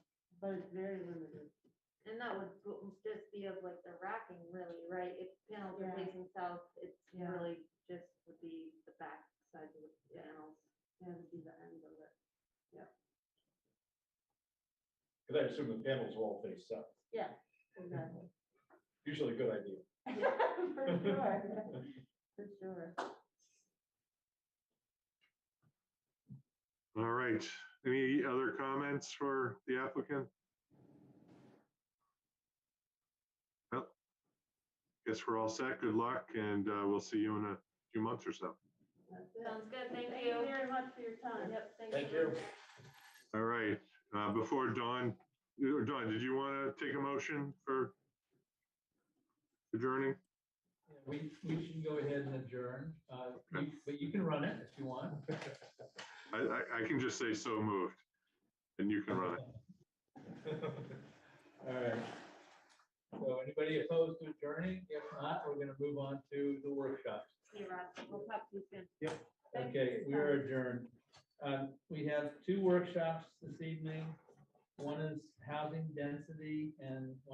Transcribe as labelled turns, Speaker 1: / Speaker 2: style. Speaker 1: but it's very limited.
Speaker 2: And that would go- just be of like the racking really, right? If panels are
Speaker 1: Yeah.
Speaker 2: facing south, it's
Speaker 1: Yeah.
Speaker 2: really just would be the back side of the panels.
Speaker 1: Yeah, it'd be the end of it.
Speaker 3: Because I assume the panels will all face south.
Speaker 1: Yeah, exactly.
Speaker 3: Usually a good idea.
Speaker 1: For sure, for sure.
Speaker 4: All right. Any other comments for the applicant? Well, Guess we're all set. Good luck and uh, we'll see you in a few months or so.
Speaker 1: That's it.
Speaker 2: Sounds good, thank
Speaker 1: Thank you
Speaker 2: you.
Speaker 1: very much for your time.
Speaker 2: Yep, thank you.
Speaker 3: Thank you.
Speaker 4: All right. uh, Before Dawn, uh, Dawn, did you want to take a motion for adjourning?
Speaker 5: We, we should go ahead and adjourn, uh, you- but you can run it if you want.
Speaker 4: I, I- I can just say so moved and you can run it.
Speaker 5: All right. So anybody opposed to adjourning? If not, we're gonna move on to the workshops.
Speaker 2: Hey, Rob, we'll talk to you soon.
Speaker 1: Thank you.
Speaker 5: Okay, we are adjourned. Um, we have two workshops this evening. One is housing density and